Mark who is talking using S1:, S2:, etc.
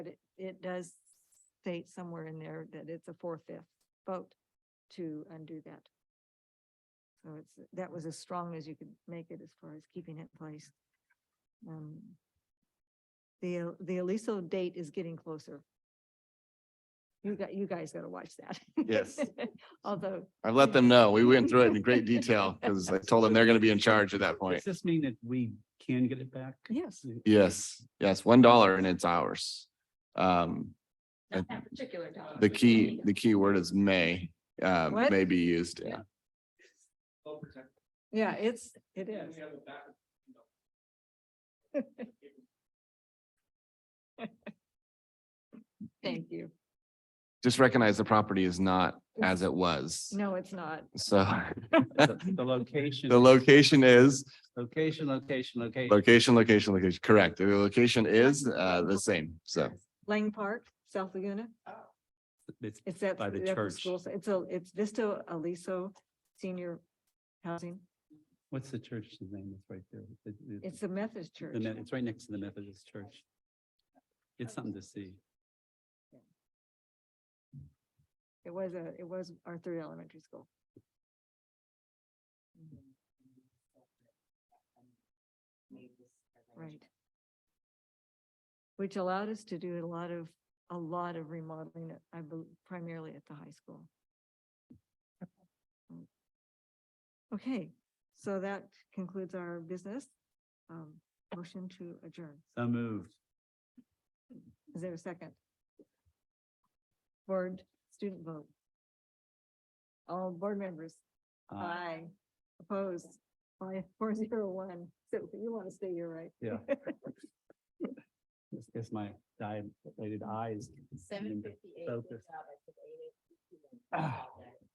S1: it does state somewhere in there that it's a four-fifth vote to undo that. So it's, that was as strong as you could make it as far as keeping it in place. Um, The, the Aliso date is getting closer. You got, you guys gotta watch that.
S2: Yes.
S1: Although,
S2: I've let them know. We went through it in great detail because I told them they're going to be in charge at that point.
S3: Does this mean that we can get it back?
S1: yes,
S2: Yes, yes, one dollar and it's ours. Um,
S4: Not
S2: And
S4: that particular dollar.
S2: the key, the key word is may, uh,
S1: What?
S2: may be used.
S3: Yeah.
S1: yeah, it's, it is. Thank you.
S2: Just recognize the property is not as it was.
S1: No, it's not.
S2: So
S3: The the location.
S2: the location is,
S3: Location, location, location.
S2: location, location, location, correct. The location is, uh, the same. So
S1: Lang Park, South Laguna.
S3: Oh. It's-
S1: It's that.
S3: By the
S1: that's
S3: church.
S1: school site. It's a, it's Vista Aliso Senior Housing.
S3: What's the church's name that's right there? It- it-
S1: It's the Methodist church.
S3: the Me- It's right next to the Methodist church. It's something to see.
S1: It was a, it was our third elementary school. Right. Which allowed us to do a lot of, a lot of remodeling, I believe primarily at the high school. Okay, so that concludes our business. Um, motion to adjourn.
S3: So moved.
S1: Is there a second? Board student vote. All board members,
S3: Uh,
S1: aye, opposed, by four zero one, so you want to stay here, right?
S3: Yeah. It's- It's my dilated eyes.
S4: Seven fifty-eight.
S3: Focus. Ah.